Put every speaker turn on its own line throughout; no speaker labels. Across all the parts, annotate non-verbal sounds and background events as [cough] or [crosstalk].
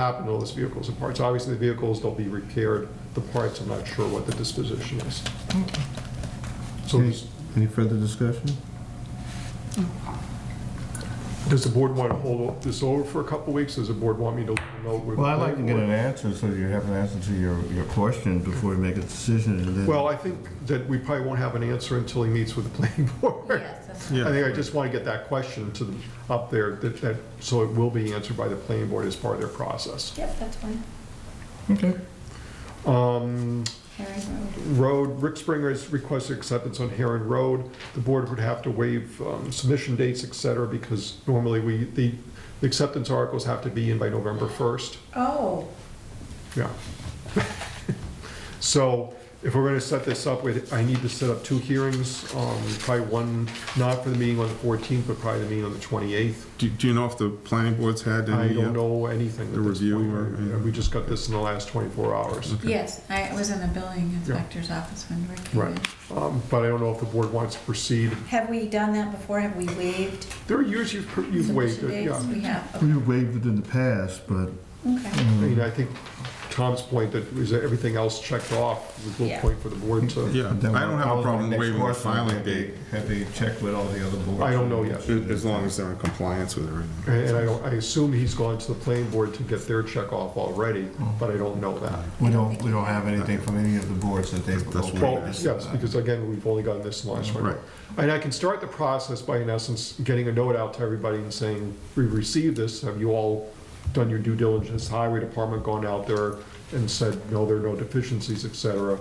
happen to all those vehicles and parts. Obviously, the vehicles, they'll be repaired, the parts, I'm not sure what the disposition is. So
Any-
does-
Any further discussion?
does the board want to hold this over for a couple of weeks? Does the board want me to know? where the
Well, I'd like to get
planning
an
board-
answer, so you have an answer to your, your question before you make a decision, and then...
Well, I think that we probably won't have an answer until he meets with the [laughs] planning board.
Yes, that's-
I think I just want to get that question to, them up there, that, that- so it will be answered by the planning board as part of their process.
Yep, that's fine.
Okay. Mm.
Um,
Herring Road.
Road, Rick Springer has requested acceptance on Heron Road. The board would have to waive um, submission dates, et cetera, because normally we, the the acceptance articles have to be in by November 1st.
Oh,
Yeah. [laughs] So if we're gonna set this up, we'd- I need to set up two hearings, um, probably one, not for the meeting on the 14th, but probably the meeting on the 28th.
Do, do you know if the planning board's had
I
any?
don't
uh,
know anything at
the
this
review
point.
or-
Yeah, We just got this in the last 24 hours.
yes, I was in the building inspector's office when Rick came
Right.
in.
Um, But I don't know if the board wants to proceed.
Have we done that before? Have we waived
There are years you've you've waived
submission
it, yeah.
dates? We have,
We waived it in the past, but,
okay.
I mean, I think Tom's point that is everything else checked off was a little
Yeah.
point for the board to,
Yeah, I
Then
don't have a problem
next
waiving the
question,
filing
have they-
date,
Have they checked with all the other boards?
I don't know yet.
as long as they're in compliance with everything.
and and I don't, I assume he's gone to the planning board to get their check off already, but I don't know that.
We don't, we don't have anything from any of the boards that they've...
That's
okayed
what-
Well,
Right.
this.
yes, because again, we've only gotten this last one.
Right.
And I can start the process by, in essence, getting a note out to everybody and saying, we received this, have you all done your due diligence? Highway Department gone out there and said, no, there are no deficiencies, et cetera.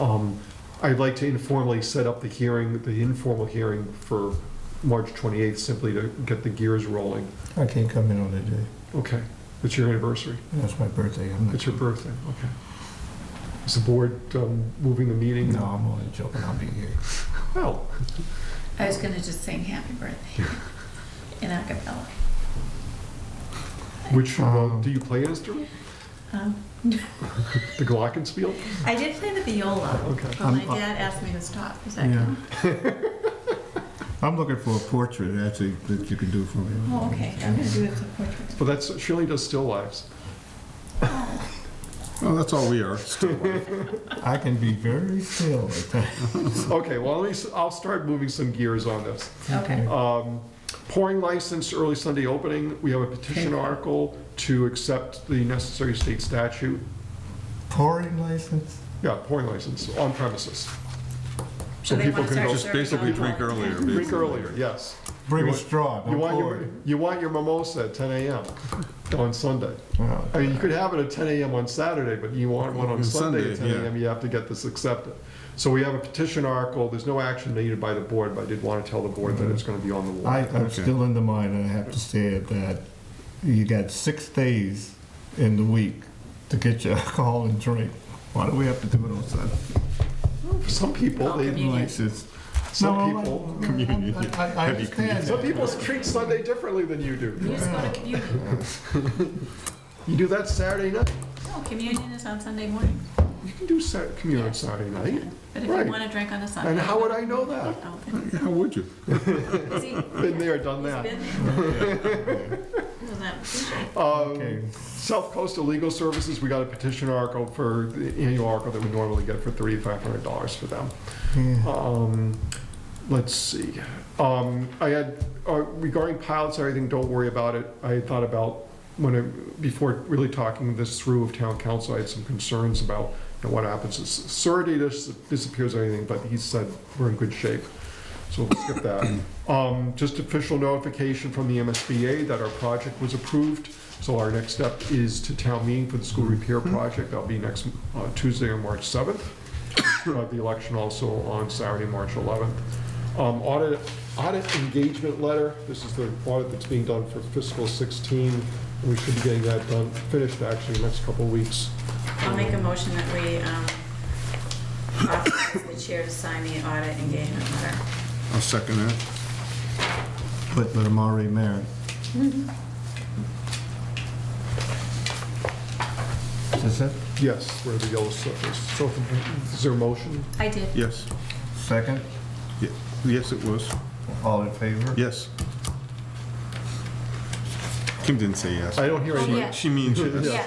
Um, I'd like to informally set up the hearing, the informal hearing for March 28th, simply to get the gears rolling.
I can't come in on that day.
Okay, it's your anniversary,
That's my birthday. I'm not-
it's your birthday, okay. Is the board um, moving the meeting?
No, I'm only joking, I'll be here.
Well,
I was gonna just sing
[laughs]
happy birthday in a cappella.
which, uh,
Um,
do you play an instrument?
Um,
[laughs] The glockenspiel?
I did play the viola,
Okay. uh,
but my
I'm-
dad asked me to stop. Is that
Yeah.
good?
I'm looking for a portrait, actually, that you can do for me.
Oh, okay, I'm gonna do it as a portrait.
But that's, Shirley does still lives.
Well, that's all we are. Still,
I can be very still at times.
Okay, well, at least I'll start moving some gears on this.
Okay.
Um, Pouring license, early Sunday opening, we have a petition article to accept the necessary state statute.
Pouring license?
Yeah, pouring license on premises. So
So they
people
wanna
can
start
go
Just basically drink earlier.
drink earlier, yes.
Bring
You
a
want-
straw,
You
don't
want
pour
your,
it.
you want your mimosa at 10
[laughs]
AM on Sunday.
Wow.
I mean, you could have it at 10 AM on Saturday, but you want one on
On
Sunday at 10
Sunday, yeah.
AM, you have to get this accepted. So we have a petition article, there's no action needed by the board, but I did want to tell the board that it's going to be on the
Mm-hmm. I,
warrant.
I'm
Okay.
still in the mind, and I have to say it, that you got six days in the week to get your [laughs] alcohol and drink. Why do we have to do it on Sunday?
Some people, they,
Communion.
License.
some
No, I-
people,
I- I, I understand
some
that.
people treat Sunday differently than you
You
do.
just go to communion.
You do that Saturday night,
No, communion is on Sunday morning.
you can do Sa- communion on Saturday night.
But if
Right.
you wanna drink on a Sunday.
And how would I know that?
Oh,
How would you?
is he-
Been there, done
He's
that.
been there. Well, that-
Okay.
Um, South Coastal Legal Services, we got a petition article for, the annual article that we normally get for $3,500 for them.
Yeah.
Um, let's see. Um, I had, uh, regarding pilots, and everything, don't worry about it. I had thought about, when I, before really talking this through with town council, I had some concerns about you know, what happens if surety dis- disappears or anything, but he said we're in good shape. So we'll skip that. Um, just official notification from the MSBA that our project was approved. So our next step is to town meeting for the school repair project. That'll be next uh, Tuesday on March 7th uh, the election also on Saturday, March 11th. Um, Audit, audit engagement letter, this is the audit that's being done for fiscal 16. We should be getting that done, finished actually, next couple of weeks.
I'll make a motion that we um, authorize the chair to sign the audit engagement letter.
I'll second that.
But, but I'm already married. Mm-hmm. Is this it?
Yes, where the yellow stuff is. So if- is there a motion?
I did.
Yes.
Second?
Ye- Yes, it was.
All in favor?
Yes.
Kim didn't say yes.
I don't hear
Well,
any.
yeah.
She means yes.
Oh,
[laughs]
Yeah,